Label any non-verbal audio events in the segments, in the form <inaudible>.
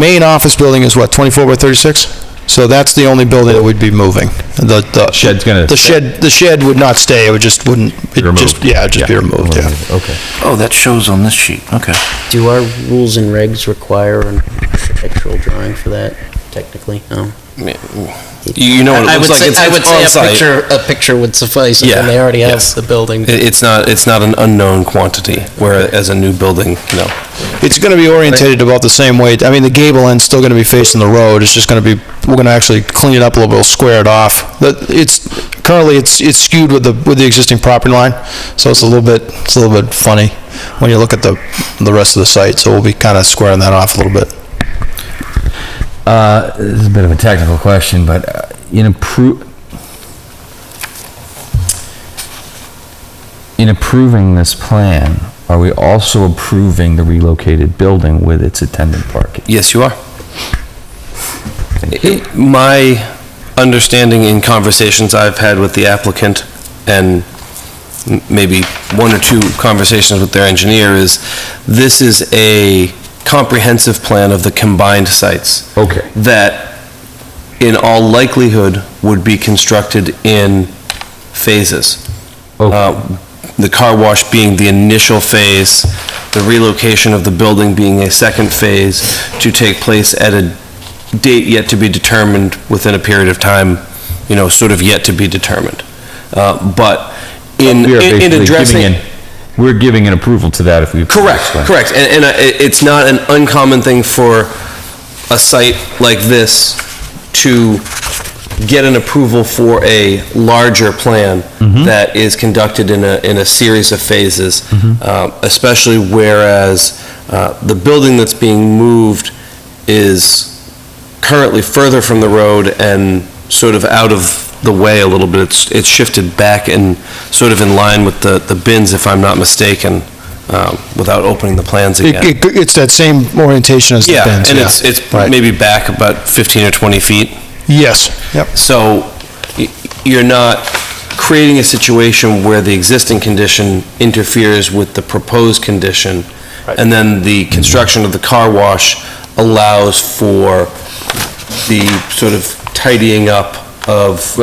main office building is what, 24 by 36? So that's the only building that would be moving. The, the. Shed's gonna- The shed, the shed would not stay, it would just wouldn't, it just, removed. yeah, it'd just be removed, yeah. Okay. Oh, that shows on this sheet, okay. Do our rules and regs require an architectural drawing for that, technically? No? You know what I Oh, it would looks like. say, It's- I it's would say a on-site. picture, a picture would suffice, and Yeah, they already have yes. the building. It- It's not, it's not an unknown quantity, whereas a new building, no. It's going to be orientated about the same way, I mean, the gable end's still going to be facing the road, it's just going to be, we're going to actually clean it up a little bit, we'll square it off. The- It's, currently, it's it's skewed with the, with the existing property line, so it's a little bit, it's a little bit funny when you look at the, the rest of the site, so we'll be kind of squaring that off a little bit. Uh, this is a bit of a technical question, but uh, in appro, in approving this plan, are we also approving the relocated building with its attendant parking? Yes, you are. It- My understanding in conversations I've had with the applicant and m- maybe one or two conversations with their engineer is this is a comprehensive plan of the combined sites. Okay. that in all likelihood would be constructed in phases. Okay. Uh, The car wash being the initial phase, the relocation of the building being a second phase to take place at a date yet to be determined within a period of time, you know, sort of yet to be determined. Uh, But in, We are in- in basically addressing. giving an- We're giving an approval to that if we. approve Correct, this plan. correct. And, and uh, it- it's not an uncommon thing for a site like this to get an approval for a larger plan that is conducted in a, in a series of phases, Uh, especially whereas uh, the building that's being moved is currently further from the road and sort of out of the way a little bit. It's, it's shifted back and sort of in line with the, the bins, if I'm not mistaken, um, without opening the plans It- again. it- It's that same orientation as the Yeah, bins, yeah. and it's, it's Right. maybe back about 15 or 20 feet. Yes, yep. So y- you're not creating a situation where the existing condition interferes with the proposed condition, and then the construction of the car wash allows for the sort of tidying up of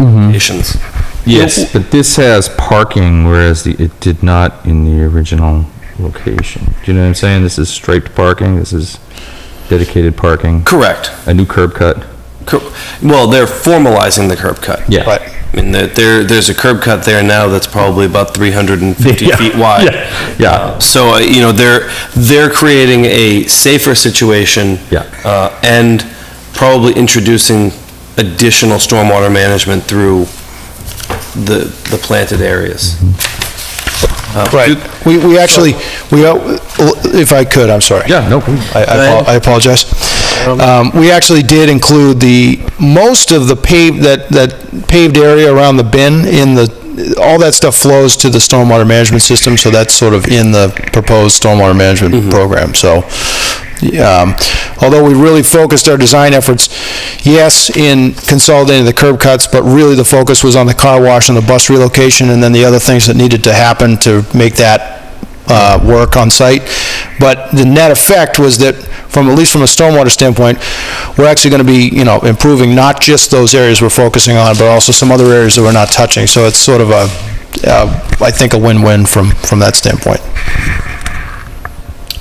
Mm-hmm. conditions. Yes, but this has parking, whereas the, it did not in the original location. Do you know what I'm saying? This is striped parking, this is dedicated parking, Correct. a new curb cut. Cor- Well, they're formalizing the curb cut. Yeah. Right. I mean, there- there, there's a curb cut there now that's probably about 350 feet wide. yeah, yeah. Uh, So, uh, you know, they're, they're creating a safer situation. Yeah. uh, And probably introducing additional stormwater management through the, the planted areas. Right. We, we actually, we, uh, if I could, I'm sorry. Yeah, no, please. I- I apo- I apologize. Um, We actually did include the, most of the paved, that, that paved area around the bin in the, all that stuff flows to the stormwater management system, so that's sort of in the proposed stormwater management program, so. um, Although we really focused our design efforts, yes, in consolidating the curb cuts, but really the focus was on the car wash and the bus relocation, and then the other things that needed to happen to make that uh, work on site. But the net effect was that, from, at least from a stormwater standpoint, we're actually going to be, you know, improving not just those areas we're focusing on, but also some other areas that we're not touching. So it's sort of a, uh, I think, a win-win from, from that standpoint.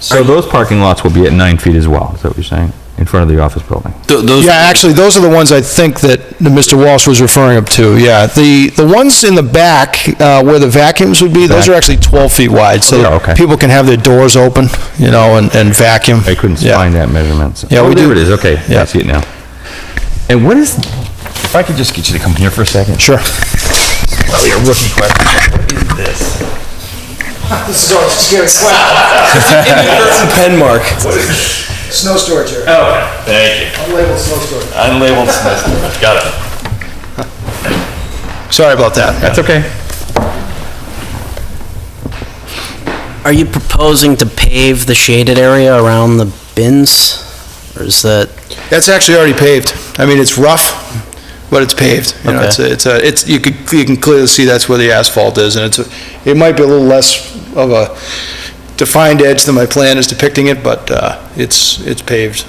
So those parking lots will be at nine feet as well, is that what you're saying? In front of the office building? Th- Those, Yeah, actually, those are the ones I think that Mr. Walsh was referring up to, yeah. The, the ones in the back, uh, where the vacuums would be, those are actually 12 feet wide, so They are, okay. people can have their doors open, you know, and, and vacuum. I couldn't Yeah. find that measurement. so- Yeah, we Oh, there do. it is, okay, Yeah. I see it now. And what is, if I could just get you to come here for a second? Sure. Probably a rookie question. Curtain <laughs> pen mark. Snow storage area. Okay, thank you. Oh, Unlabeled snow storage. Unlabeled Smith, got it. Sorry about that. That's okay. Are you proposing to pave the shaded area around the bins? Or is that, That's actually already paved. I mean, it's rough, but it's paved. You know, Okay. it's, a- it's, a- it's, you could, you can clearly see that's where the asphalt is, and it's, a- it might be a little less of a defined edge than my plan is depicting it, but uh, it's, it's paved